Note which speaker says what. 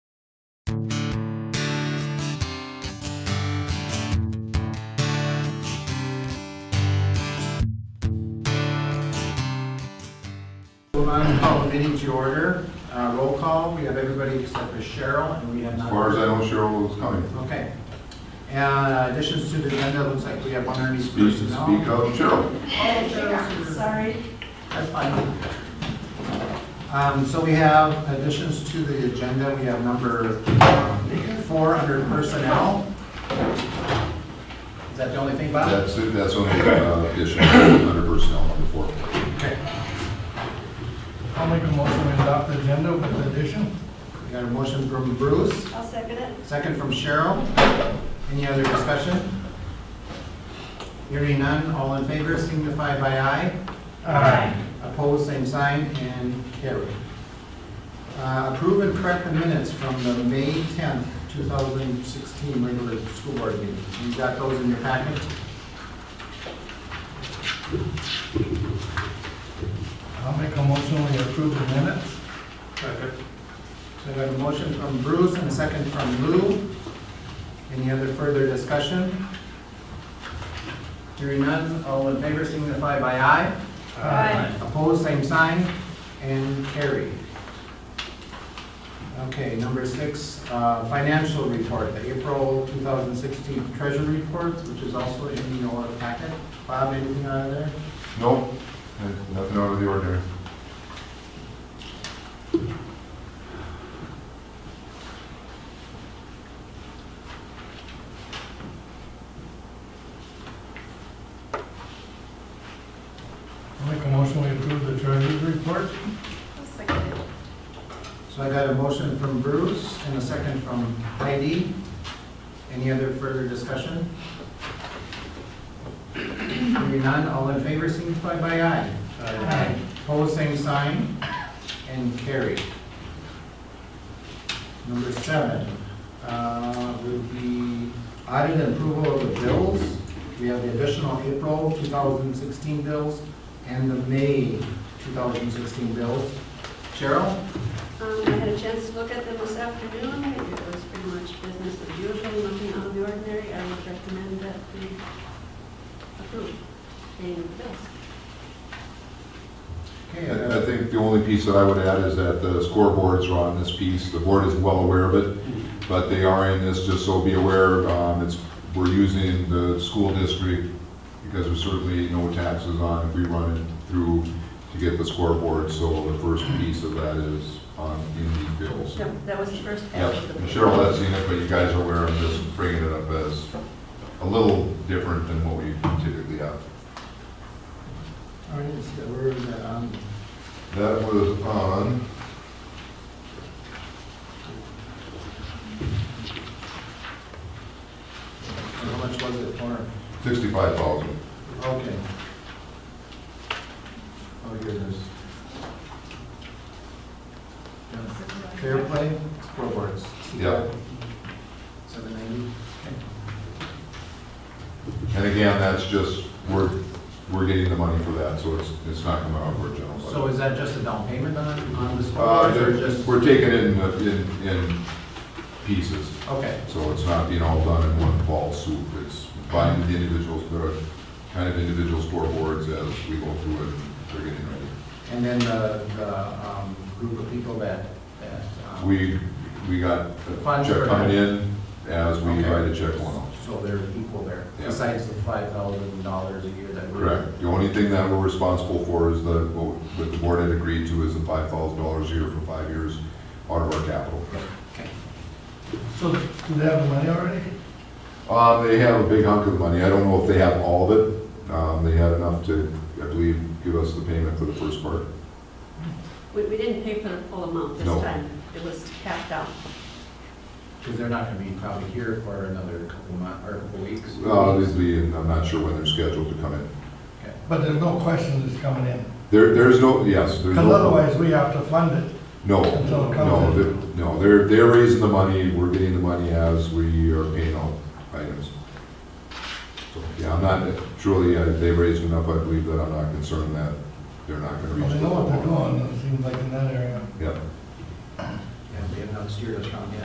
Speaker 1: on, call the meeting to order. Uh, Roll call, we have everybody except for Cheryl, and we have not.
Speaker 2: As far as I know, Cheryl was coming.
Speaker 1: Okay. And uh, additions to the agenda, looks like we have one attorney's
Speaker 2: Speak, speak
Speaker 1: personnel.
Speaker 2: up, Cheryl.
Speaker 1: Oh, Cheryl's here.
Speaker 3: Sorry,
Speaker 1: That's fine. Um, So we have additions to the agenda. We have number um, four under personnel. Is that the only thing, Bob?
Speaker 2: That's, it. that's only uh, addition under personnel number four.
Speaker 1: Okay.
Speaker 4: I'll make a motion to adopt the agenda with addition.
Speaker 1: We got a motion from Bruce,
Speaker 3: I'll second it.
Speaker 1: second from Cheryl. Any other discussion? Hearing none, all in favor signify by aye. Opposed, same sign, and carried. Uh, Approve and correct the minutes from the May 10th, 2016 regular school board meeting. You've got those in your packet?
Speaker 4: I'll make a motion we approve the minutes.
Speaker 1: So we have a motion from Bruce and a second from Lou. Any other further discussion? Hearing none, all in favor signify by aye.
Speaker 3: Aye.
Speaker 1: Opposed, same sign, and carried. Okay, number six, uh, financial report, the April 2016 treasury reports, which is also in your packet. Bob, anything out of there?
Speaker 2: No, eh, nothing out of the ordinary.
Speaker 4: I'll make a motion we approve the treasurer's report.
Speaker 3: I'll second it.
Speaker 1: So I got a motion from Bruce and a second from Heidi. Any other further discussion? Hearing none, all in favor signify by aye.
Speaker 3: Aye.
Speaker 1: Pose same sign, and carried. Number seven, uh, would be audit and approval of the bills. We have the additional April 2016 bills and the May 2016 bills. Cheryl?
Speaker 3: Um, I had a chance to look at them this afternoon. It was pretty much business as usual, nothing out of the ordinary. I would recommend that we approve paying the bills.
Speaker 1: Okay, I
Speaker 2: I I
Speaker 1: got-
Speaker 2: think the only piece that I would add is that the scoreboards are on this piece. The board is well aware of it, but they are in this, just so be aware. um, It's, we're using the school district because there's certainly no taxes on if we run it through to get the scoreboard. So the first piece of that is on in the bills.
Speaker 3: No, that was the first
Speaker 2: Yep,
Speaker 3: pass of the.
Speaker 2: and Cheryl has seen it, but you guys are aware, I'm just bringing it up as a little different than what we typically have.
Speaker 1: All right, let's see, where is that um, on?
Speaker 2: That was on,
Speaker 1: How much was it for?
Speaker 2: sixty-five thousand.
Speaker 1: Okay. Oh, here it is. Yeah. Fair play, scoreboards.
Speaker 2: Yeah.
Speaker 1: Seven ninety.
Speaker 2: And again, that's just, we're, we're getting the money for that, so it's, it's not coming out of our general
Speaker 1: So
Speaker 2: budget.
Speaker 1: is that just a down payment on, on the scoreboards or
Speaker 2: Uh,
Speaker 1: just?
Speaker 2: we're taking it in, in, in pieces,
Speaker 1: Okay,
Speaker 2: so it's not being all done in one fall swoop. It's buying the individuals, the kind of individual scoreboards as we go through it, and they're getting ready.
Speaker 1: and then the, the, um, group of people that, that. um,
Speaker 2: We, we got a
Speaker 1: Funds for
Speaker 2: check coming
Speaker 1: that.
Speaker 2: in as we
Speaker 1: Okay.
Speaker 2: write a check one off.
Speaker 1: So they're equal there,
Speaker 2: Yeah.
Speaker 1: besides the five thousand dollars a year that we're.
Speaker 2: Correct. The only thing that we're responsible for is the, what the board had agreed to is the five thousand dollars a year for five years out of our capital.
Speaker 1: Okay.
Speaker 4: So do they have the money already?
Speaker 2: Um, they have a big hunk of money. I don't know if they have all of it. Um, they had enough to, I believe, give us the payment for the first part.
Speaker 3: We, we didn't pay for the full amount this
Speaker 2: No.
Speaker 3: time. It was capped out.
Speaker 1: Because they're not gonna be probably here for another couple months, or a couple weeks.
Speaker 2: Obviously, and Uh, I'm not sure when they're scheduled to come in.
Speaker 1: Okay.
Speaker 4: But there's no question it's coming in.
Speaker 2: There, there's no, yes, there's no.
Speaker 4: Because otherwise, we have to fund it.
Speaker 2: No,
Speaker 4: Until it comes
Speaker 2: no,
Speaker 4: in.
Speaker 2: they're- no, they're, they're raising the money, we're getting the money as we are paying all items. So, Yeah, I'm not, truly, uh, they raised enough, I believe that I'm not concerned that they're not gonna
Speaker 4: Well,
Speaker 2: reach.
Speaker 4: They know what they're doing, it seems like in that area.
Speaker 2: Yeah.
Speaker 1: Yeah, we have not steered us wrong yet.